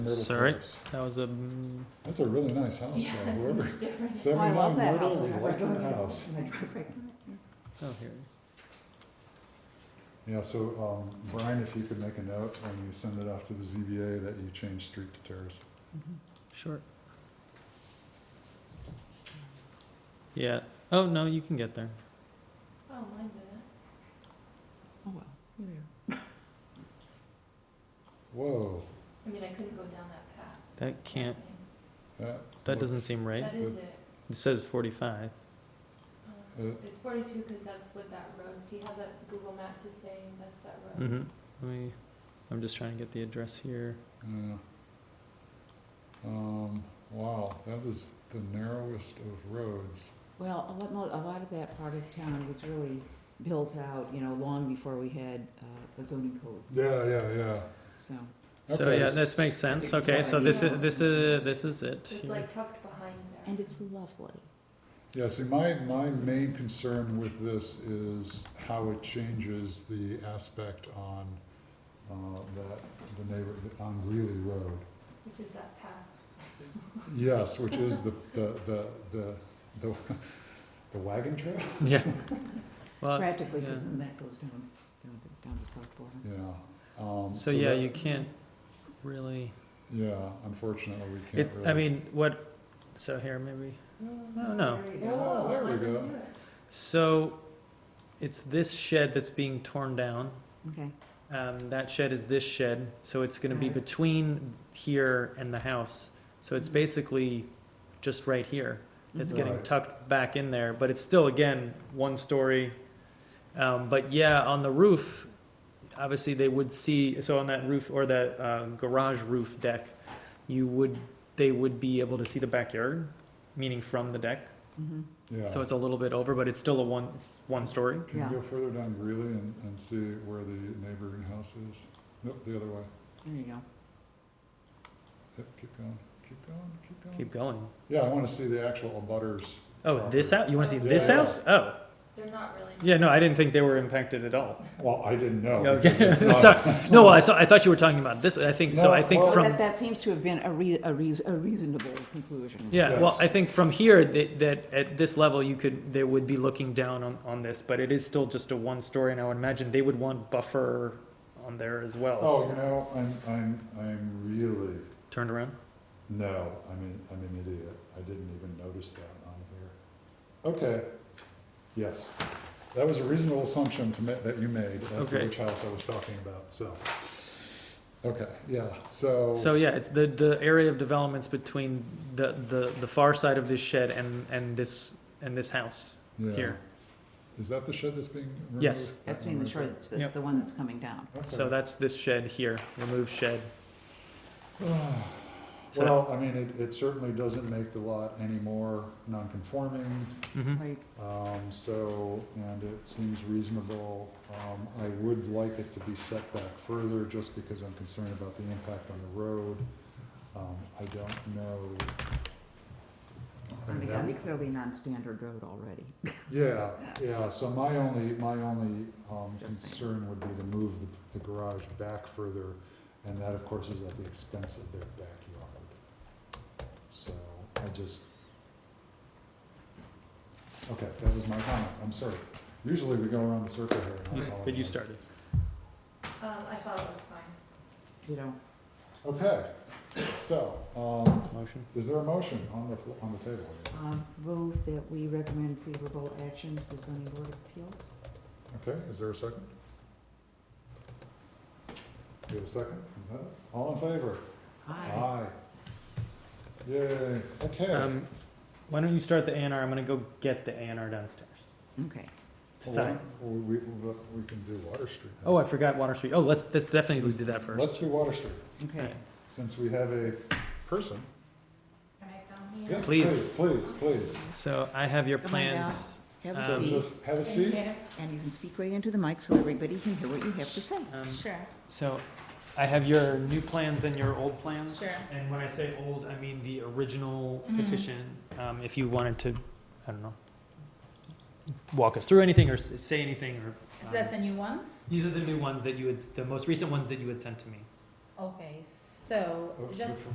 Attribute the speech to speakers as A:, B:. A: Myrtle
B: Sorry?
A: Terrace.
B: That was a, mm,
A: That's a really nice house,
C: Yeah,
A: though.
C: it's
A: whoever,
C: much different.
D: I love
A: seventy-nine
D: that
A: Myrtle,
D: house. I
A: we
D: drive
A: like
D: by
A: that
D: it
A: house.
D: when I drive by it.
B: oh, here.
A: Yeah, so, um, Brian, if you could make a note when you send it off to the ZBA that you change street to terrace.
B: Short. Yeah. Oh, no, you can get there.
C: Oh, mine did
D: Oh, well, you're there.
A: Whoa,
C: I mean, I couldn't go down that path.
B: That can't,
A: that.
B: that doesn't seem right.
C: That is it.
B: It says forty-five.
C: Um,
A: Uh,
C: It's forty-two, cause that's what that road, see how that Google Maps is saying, that's that road.
B: Mm-hmm. Let me, I'm just trying to get the address here.
A: Yeah. Um, wow, that is the narrowest of roads.
D: Well, a lot, mo- a lot of that part of town was really built out, you know, long before we had uh, a zoning code,
A: Yeah, yeah, yeah.
D: so.
B: So,
A: Okay,
B: yeah, this makes
A: s-
B: sense. Okay, so this is, this is, this is it.
C: It's
B: here.
C: like tucked behind there.
D: And it's lovely.
A: Yeah, see, my, my main concern with this is how it changes the aspect on, uh, that, the neighbor, on Greeley Road.
C: Which is that path.
A: Yes, which is the, the, the, the, the the wagon trail?
B: Yeah. Well,
D: Practically, because
B: Uh, yeah.
D: then that goes down, down to, down to South Florida.
A: Yeah. um,
B: so yeah,
A: that-
B: you can't really,
A: Yeah, unfortunately, we can't
B: it,
A: really.
B: I mean, what, so here, maybe, no, no.
D: There you
A: Oh,
D: go.
A: there
C: I
A: we
C: can
A: go.
C: do it.
B: So, it's this shed that's being torn down.
D: Okay,
B: Um, that shed is this shed, so it's gonna be
D: Right.
B: between here and the house. So it's
D: Mhm.
B: basically just right here. It's
D: Mm-hmm.
A: Mhm.
B: getting
A: Right.
B: tucked back in there, but it's still, again, one story. Um, but yeah, on the roof, obviously they would see, so on that roof or that, uh, garage roof deck, you would, they would be able to see the backyard, meaning from the deck.
D: mhm.
A: Yeah.
B: So it's a little bit over, but it's still a one, it's one story.
A: Can
D: Yeah.
A: you go further down Greeley and, and see where the neighboring house is? Nope, the other way.
D: there you go.
A: Yep, keep going, keep going, keep going.
B: Keep going.
A: Yeah, I wanna see the actual abutters.
B: Oh, this house? You wanna see
C: Yeah,
B: this
A: yeah.
B: house? Oh.
C: They're not really.
B: Yeah, no, I didn't think they were impacted at all.
A: Well, I didn't know.
B: Okay.
A: because it's not-
B: Sorry. No, well, I, saw, I thought you were talking about this. I think so. I
A: No,
B: think
A: well-
D: Well, that,
B: from
D: that seems to have been a rea- a reas- a reasonable conclusion.
B: yeah. Well,
A: Yes.
B: I think from here that, that at this level you could they would be looking down on, on this, but it is still just a one story, and I would imagine they would want buffer on there as well.
A: Oh, you know, I'm, I'm, I'm really,
B: Turned around.
A: no, I mean, I'm an idiot. I didn't even notice that on here. Okay, yes. That was a reasonable assumption to ma, that you made as to
B: Okay.
A: which house I was talking about, so. Okay, yeah, so.
B: So yeah, it's the the area of developments between the the, the far side of this shed and and this and this house
A: yeah.
B: here.
A: Is that the shed that's being removed?
B: Yes.
D: That's
A: That
D: being the
A: one right
D: short, the,
B: Yep.
D: the one that's coming down.
A: there?
B: So
A: Okay.
B: that's this shed here, remove shed. So-
A: Well, I mean, it, it certainly doesn't make the lot any more non-conforming.
B: Mhm.
D: Right,
A: Um, so, and it seems reasonable. Um, I would like it to be set back further just because I'm concerned about the impact on the road. Um, I don't know. I
D: I
A: mean,
D: mean,
A: that-
D: that'd be clearly non-standard road already.
A: Yeah, yeah, so my only, my only, um,
D: Just saying.
A: concern would be to move the, the garage back further, and that, of course, is at the expense of their backyard. So, I just. Okay, that was my comment, I'm sorry. Usually we go around the circle here. and I
B: You- But mm-hmm. you
A: apologize.
B: started.
C: Um, I thought it looked fine.
D: You know,
A: Okay, so, um,
B: Motion.
A: is there a motion on the, fl- on the table? here?
D: um, move that we recommend favorable action to the zoning board of appeals.
A: Okay, is there a second? Do you have a second? No? All in favor? Aye. Yay, okay.
B: Um, why don't you start the A and R? I'm gonna go get the A and R downstairs.
D: Okay.
B: To sign.
A: Well, We, we, we can do Water Street. now.
B: Oh, I forgot Water Street. Oh, let's, let's definitely do that
A: Let's
B: first.
A: do Water Street,
D: Okay.
A: since we have a person.
C: Can I come here?
A: Yes,
B: Please.
A: Please, please.
B: So I have your
D: Come on down.
B: plans.
D: Have
B: Um,
D: a
A: So
D: seat,
A: just have a
C: And
A: seat.
C: here?
D: and you can speak right into the mic so everybody can hear what you have to say.
B: Um,
C: Sure,
B: so I have your new plans and your old plans.
C: Sure.
B: And when I say old, I mean the original
D: Mm-hmm.
C: Mhm.
B: petition. Um, if you wanted to, I don't know, walk us through anything or s- say anything or. um,
C: a new one?
B: These are the new ones that you had, s- the most recent ones that you had sent to me.
C: Okay, so So
E: Oh,
A: Uh,
C: just